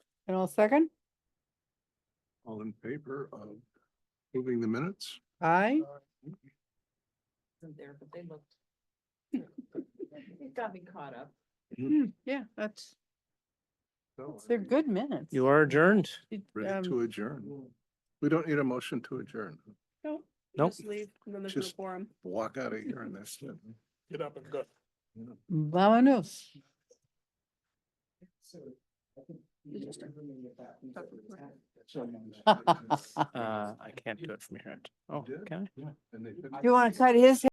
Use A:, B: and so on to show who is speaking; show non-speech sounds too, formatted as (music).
A: And I'll second.
B: All in favor of moving the minutes? Uh,
A: Aye.
C: There, but they looked. (laughs) It got me caught up.
A: Hmm, Yeah, that's,
B: So,
A: they're good minutes.
D: You are adjourned.
A: It,
B: Ready to
A: um,
B: adjourn. We don't need a motion to adjourn.
D: Nope.
E: Just leave, and then there's no
B: Just-
E: forum.
B: Walk out of here and that's it.
F: Get up and
A: (laughs)
F: go.
A: Vamonos.
D: Uh, I can't do it from here. Oh,
B: You did?
D: can I?
B: And they-
A: You want to cut his